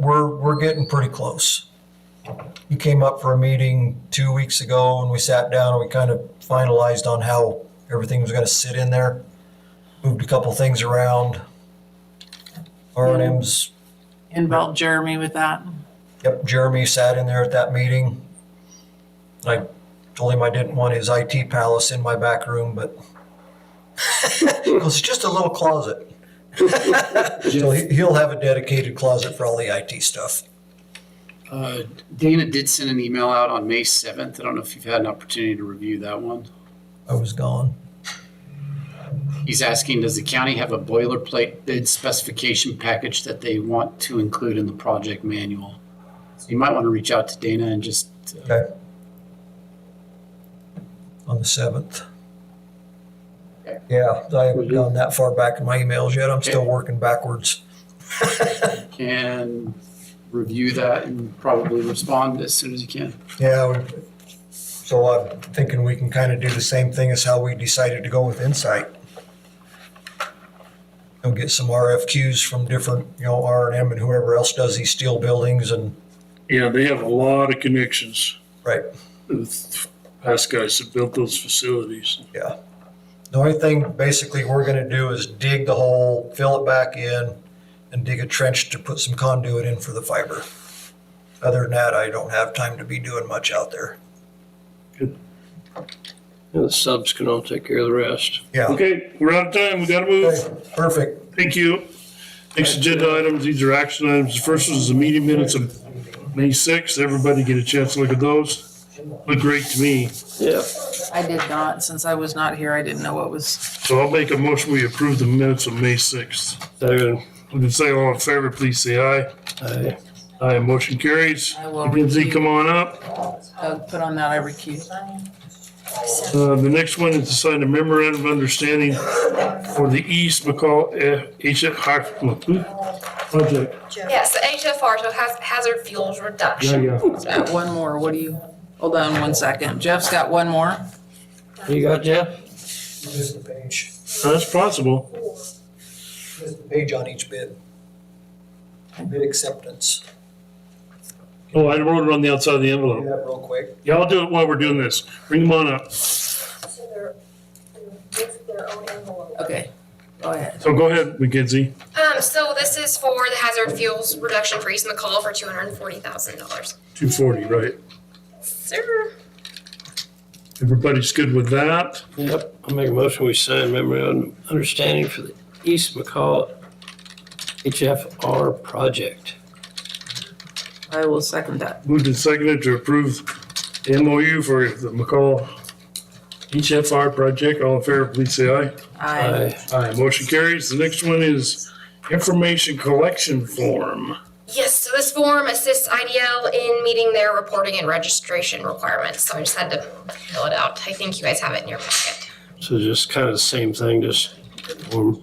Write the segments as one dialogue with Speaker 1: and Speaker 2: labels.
Speaker 1: we're, we're getting pretty close. You came up for a meeting two weeks ago and we sat down and we kind of finalized on how everything was gonna sit in there. Moved a couple things around. R and M's
Speaker 2: Involve Jeremy with that.
Speaker 1: Yep, Jeremy sat in there at that meeting. I told him I didn't want his IT palace in my back room, but it was just a little closet. So he- he'll have a dedicated closet for all the IT stuff.
Speaker 3: Uh, Dana did send an email out on May 7th. I don't know if you've had an opportunity to review that one.
Speaker 1: I was gone.
Speaker 3: He's asking, does the county have a boilerplate bid specification package that they want to include in the project manual? So you might want to reach out to Dana and just, uh,
Speaker 1: Okay. On the seventh.
Speaker 3: Okay.
Speaker 1: Yeah, I haven't gone that far back in my emails yet. I'm still working backwards.
Speaker 3: can review that and probably respond as soon as you can.
Speaker 1: Yeah, we- so I'm thinking we can kind of do the same thing as how we decided to go with Insight. Go get some RFQs from different, you know, R and M and whoever else does these steel buildings and,
Speaker 4: Yeah, they have a lot of connections
Speaker 1: right,
Speaker 4: with past guys that built those facilities.
Speaker 1: yeah. The only thing basically we're gonna do is dig the hole, fill it back in, and dig a trench to put some conduit in for the fiber. Other than that, I don't have time to be doing much out there.
Speaker 5: And the subs can all take care of the rest.
Speaker 1: Yeah,
Speaker 4: Okay, we're out of time. We gotta move.
Speaker 1: Okay, perfect.
Speaker 4: Thank you. Next agenda items, these are action items. The First is the meeting minutes of May sixth. Everybody get a chance to look at those. Look great to me.
Speaker 5: Yeah.
Speaker 2: I did not, since I was not here, I didn't know what was.
Speaker 4: So I'll make a motion. We approve the minutes of May sixth.
Speaker 5: Second.
Speaker 4: If you say all in favor, please say aye.
Speaker 5: Aye.
Speaker 4: Aye, motion carries.
Speaker 2: I will
Speaker 4: Lindsay,
Speaker 2: recuse.
Speaker 4: come on up.
Speaker 2: Doug uh, put on that, I recused.
Speaker 4: Uh, The next one is to sign a memorandum of understanding for the East McCall eh, HF Hydro Project.
Speaker 6: Yes, the HFR, so haz- hazard fuels
Speaker 4: Yeah,
Speaker 6: reduction.
Speaker 4: yeah. Uh,
Speaker 2: Got one more, what do you, hold on one second. Jeff's got one more.
Speaker 5: You got Jeff?
Speaker 1: Just the page,
Speaker 4: That's possible.
Speaker 1: just the page on each bid. Bid acceptance.
Speaker 4: Oh, I wrote it on the outside of the
Speaker 1: Do
Speaker 4: envelope.
Speaker 1: that real quick.
Speaker 4: Yeah, I'll do it while we're doing this. Bring them on up.
Speaker 7: So they're, they're their own envelope.
Speaker 2: Okay, go ahead.
Speaker 4: So go ahead, McKenzie.
Speaker 6: Um, so this is for the hazard fuels reduction for East McCall for two hundred and forty thousand dollars.
Speaker 4: Two forty, right.
Speaker 6: Sir,
Speaker 4: Everybody's good with that?
Speaker 5: Yep. I make a motion, we sign memorandum of understanding for the East McCall HFR project.
Speaker 2: I will second that.
Speaker 4: Moved and seconded to approve the MOU for the McCall HFR project. All in favor, please say aye.
Speaker 2: I,
Speaker 4: Aye, motion carries. The next one is information collection form.
Speaker 6: yes, so this form assists IDL in meeting their reporting and registration requirements, so I just had to fill it out. I think you guys have it in your packet.
Speaker 5: So just kind of the same thing, just, um,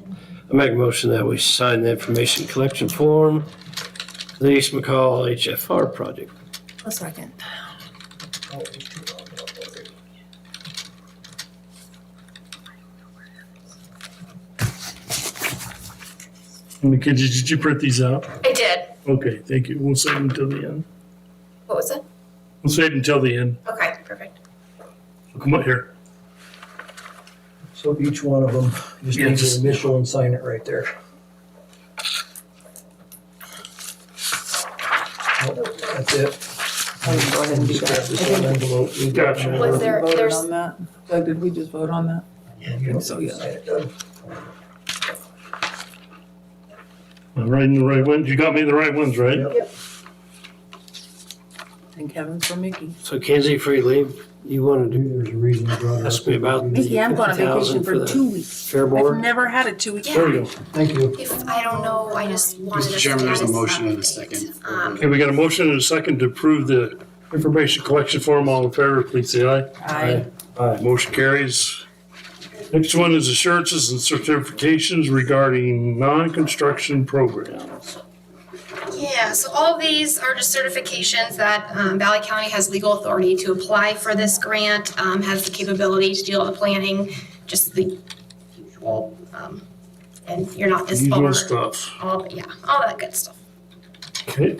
Speaker 5: I make a motion that we sign the information collection form, for the East McCall HFR project.
Speaker 2: a second.
Speaker 4: McKenzie, did you print these out?
Speaker 6: I did.
Speaker 4: Okay, thank you. We'll save them until the end.
Speaker 6: What was it?
Speaker 4: We'll save them until the end.
Speaker 6: Okay, perfect.
Speaker 4: Come up here.
Speaker 1: So each one of them, just
Speaker 4: Yeah,
Speaker 1: need
Speaker 4: just-
Speaker 1: to initial and sign it right there. Yep, That's it.
Speaker 2: I can Go ahead and do
Speaker 1: Just grab this
Speaker 2: that.
Speaker 1: one envelope. We've got
Speaker 4: Gotcha.
Speaker 1: it.
Speaker 6: Was there-
Speaker 2: Voted
Speaker 6: there's-
Speaker 2: on that? Doug, did we just vote on that?
Speaker 1: You don't need to sign it, Doug.
Speaker 4: I'm writing the right ones. You got me the right ones, right?
Speaker 1: Yep.
Speaker 2: Thank heaven for Mickey.
Speaker 5: So Kenzie, before you leave, you want to do,
Speaker 1: There's a reason you brought it
Speaker 5: ask
Speaker 1: up.
Speaker 5: me about
Speaker 2: Mickey, I'm
Speaker 5: the
Speaker 2: going on
Speaker 5: fifty
Speaker 2: vacation
Speaker 5: thousand for
Speaker 2: for
Speaker 5: the
Speaker 2: two weeks.
Speaker 5: fair
Speaker 2: I've
Speaker 5: board?
Speaker 2: never had a two-week.
Speaker 6: Yeah.
Speaker 4: There we go.
Speaker 1: Thank you.
Speaker 6: If, I don't know, I just wanted to.
Speaker 3: Mr. Chairman, there's a
Speaker 6: status
Speaker 3: motion and a
Speaker 6: update.
Speaker 3: second.
Speaker 6: Um,
Speaker 4: Okay, we got a motion and a second to approve the information collection form. All in favor, please say aye.
Speaker 2: I,
Speaker 4: Aye. Motion carries. Next one is assurances and certifications regarding non-construction programs.
Speaker 6: Yeah, so all of these are just certifications that um, Valley County has legal authority to apply for this grant, um, has the capability to do all the planning, just the usual, um, and you're not this
Speaker 4: Usual
Speaker 6: far.
Speaker 4: stuff.
Speaker 6: All, yeah, all that good stuff.
Speaker 4: Okay.